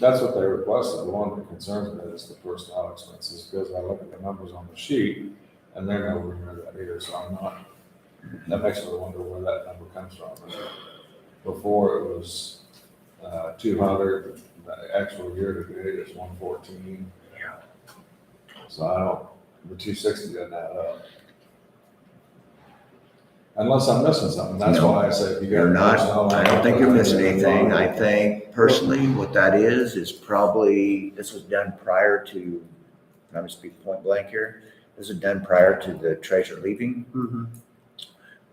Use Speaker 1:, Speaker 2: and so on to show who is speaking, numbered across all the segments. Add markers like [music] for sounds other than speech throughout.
Speaker 1: That's what they requested. The one that concerns me is the personnel expenses, because I look at the numbers on the sheet, and they're nowhere near that either, so I'm not, that makes me wonder where that number comes from. Before it was, uh, two hundred, the actual year to date is one fourteen. So I don't, the two sixty doesn't add up. Unless I'm missing something, that's
Speaker 2: No,
Speaker 1: why I say if you got.
Speaker 2: You're not,
Speaker 1: personnel,
Speaker 2: I don't think you're missing
Speaker 1: I'm
Speaker 2: anything.
Speaker 1: wrong.
Speaker 2: I think personally what that is, is probably, this was done prior to, I'm gonna speak point blank here. This was done prior to the treasurer leaving.
Speaker 3: Mhm.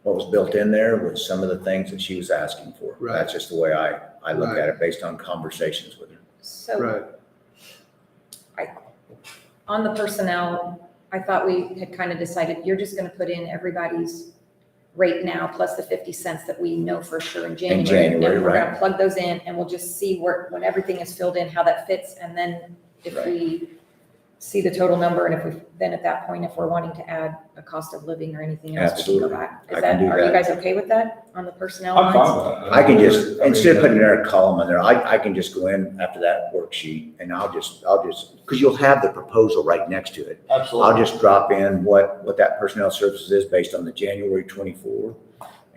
Speaker 2: What was built in there was some of the things that she was asking for.
Speaker 3: Right.
Speaker 2: That's just the way I, I look
Speaker 3: Right.
Speaker 2: at it based on conversations with her.
Speaker 4: So
Speaker 3: Right,
Speaker 4: on the personnel, I thought we had kind of decided, you're just gonna put in everybody's rate now, plus the fifty cents that we know for sure in January.
Speaker 2: January,
Speaker 4: And we're gonna
Speaker 2: right.
Speaker 4: plug those in, and we'll just see where, when everything is filled in, how that fits, and then if
Speaker 2: Right.
Speaker 4: we see the total number, and if we, then at that point, if we're wanting to add a cost of living or anything else, we can go
Speaker 2: Absolutely.
Speaker 4: back.
Speaker 2: I
Speaker 4: Is
Speaker 2: can
Speaker 4: that,
Speaker 2: do
Speaker 4: are you
Speaker 2: that.
Speaker 4: guys okay with that on the personnel
Speaker 1: I'm
Speaker 4: lines?
Speaker 1: fine with that.
Speaker 2: I can just,
Speaker 1: mean, uh,
Speaker 2: instead of
Speaker 1: that-
Speaker 2: putting another column in there, I, I can just go in after that worksheet and I'll just, I'll just, because you'll have the proposal right next to it.
Speaker 1: Absolutely.
Speaker 2: I'll just drop in what, what that personnel services is based on the January twenty-four.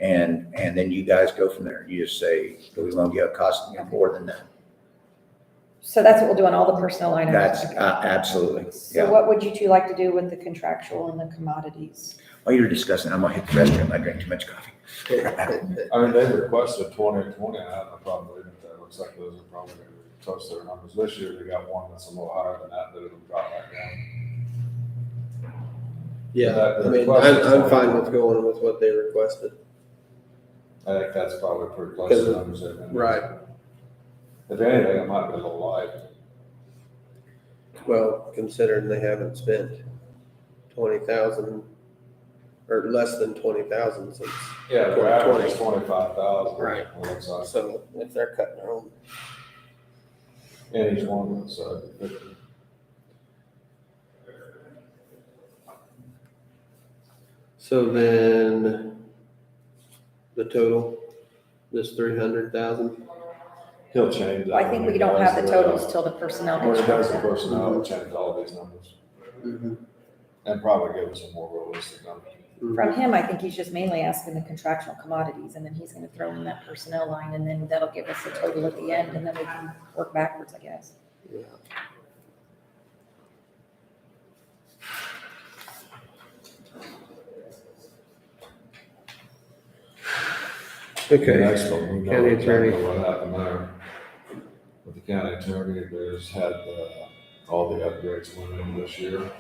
Speaker 2: And, and then you guys go from there. You just say, do we want to get a cost more than that?
Speaker 4: So that's what we'll do on all the personnel line items.
Speaker 2: That's, uh, absolutely,
Speaker 4: So
Speaker 2: yeah.
Speaker 4: what would you two like to do with the contractual and the commodities?
Speaker 2: While you're discussing, I'm gonna hit the restroom. I drank too much
Speaker 4: [laughs]
Speaker 2: coffee.
Speaker 1: I mean, they requested twenty and twenty, I have no problem with it, that looks like those are probably gonna touch their numbers. This year, they got one that's a little higher than that, that it'll drop back down.
Speaker 3: yeah,
Speaker 1: That-
Speaker 3: I mean,
Speaker 1: that-
Speaker 3: I'm, I'm fine with going with what they requested.
Speaker 1: I think that's probably pretty close to the numbers they've been.
Speaker 3: Right.
Speaker 1: If anything, it might be a little light.
Speaker 3: Well, considering they haven't spent twenty thousand or less than twenty thousand since,
Speaker 1: Yeah, the
Speaker 3: 20.
Speaker 1: average is twenty-five thousand.
Speaker 3: Right.
Speaker 1: Looks like,
Speaker 3: so if they're cutting their own,
Speaker 1: in each one of them, so. it-
Speaker 3: so then the total, this three hundred thousand,
Speaker 1: He'll change that.
Speaker 4: I think
Speaker 1: when
Speaker 4: we
Speaker 1: he
Speaker 4: don't have
Speaker 1: does
Speaker 4: the totals till the personnel.
Speaker 1: When he does the
Speaker 4: contract.
Speaker 1: personnel, he'll change all these numbers,
Speaker 3: Mm-hmm.
Speaker 1: and probably give us a more realistic number.
Speaker 4: From him, I think he's just mainly asking the contractual commodities, and then he's gonna throw in that personnel line, and then that'll give us a total at the end, and then we can work backwards, I guess. [laughs]
Speaker 3: Yeah. Mm-hmm. Okay,
Speaker 1: Next one, we know
Speaker 3: County
Speaker 1: exactly
Speaker 3: attorney.
Speaker 1: What happened there. With the county attorney, there's had, uh, all the upgrades went in this year.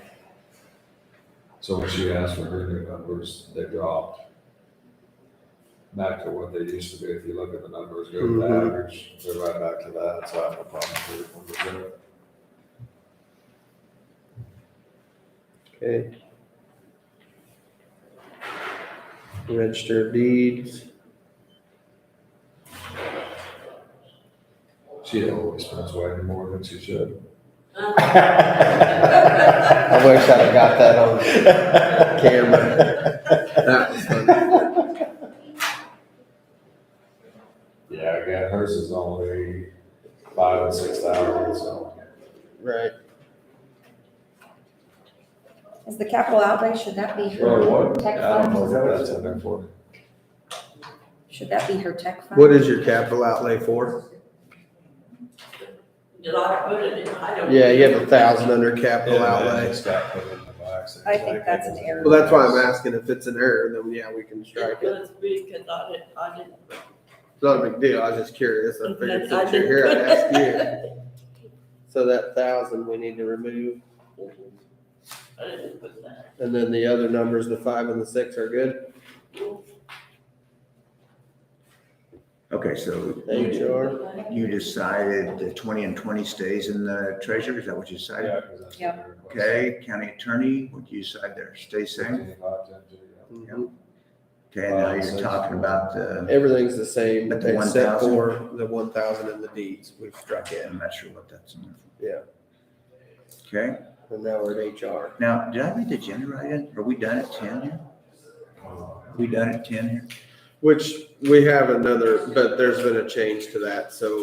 Speaker 1: So when she asked for her new numbers, they dropped. Back to what they used to be, if you look at the numbers, go to the
Speaker 3: Mhm.
Speaker 1: average, they're right back to that, so I have no problem with the numbers
Speaker 3: okay. Register of deeds,
Speaker 1: there. She always spends way more than she
Speaker 3: [laughs]
Speaker 1: should.
Speaker 3: I wish I'd got that on camera. that was funny.
Speaker 1: Yeah, again, hers is only five and six thousand, so.
Speaker 3: Right,
Speaker 4: Is the capital outlay, should that be
Speaker 1: Or
Speaker 4: her,
Speaker 1: what?
Speaker 4: Tech
Speaker 1: I don't know
Speaker 4: funds.
Speaker 1: what that's in there for.
Speaker 4: should that be her tech fund?
Speaker 3: what is your capital outlay for?
Speaker 5: Did I put it in? I don't.
Speaker 3: Yeah, you have a thousand under capital
Speaker 1: Yeah, man,
Speaker 3: outlay.
Speaker 1: it's got put in the box.
Speaker 4: I think that's an error.
Speaker 3: Well, that's why I'm asking if it's an error, then yeah, we can strike
Speaker 5: It
Speaker 3: it.
Speaker 5: was because I didn't, I didn't.
Speaker 3: It's not a big deal, I was just curious, I figured
Speaker 5: I
Speaker 3: since you're here, I'd ask you. [laughs] So that thousand we need to remove,
Speaker 5: I didn't put that.
Speaker 3: and then the other numbers, the five and the six are good,
Speaker 2: Okay, so you,
Speaker 3: HR.
Speaker 2: you decided the twenty and twenty stays in the treasurer? Is that what you decided?
Speaker 1: Yeah, 'cause that's
Speaker 4: Yep.
Speaker 1: what they request.
Speaker 2: Okay, county attorney, what do you decide there? Stay same?
Speaker 1: 25, 10, 20, yeah.
Speaker 3: Mhm.
Speaker 2: Okay, and now you're talking about the,
Speaker 3: Everything's the same,
Speaker 2: But the
Speaker 3: except
Speaker 2: 1,000?
Speaker 3: for the one thousand and the deeds, we've struck it,
Speaker 2: I'm not sure what that's in
Speaker 3: Yeah.
Speaker 2: there for. Okay.
Speaker 3: and now we're at HR.
Speaker 2: Now, did I read the agenda right in? Are we done at ten here? Are we done at ten here?
Speaker 3: Which, we have another, but there's been a change to that, so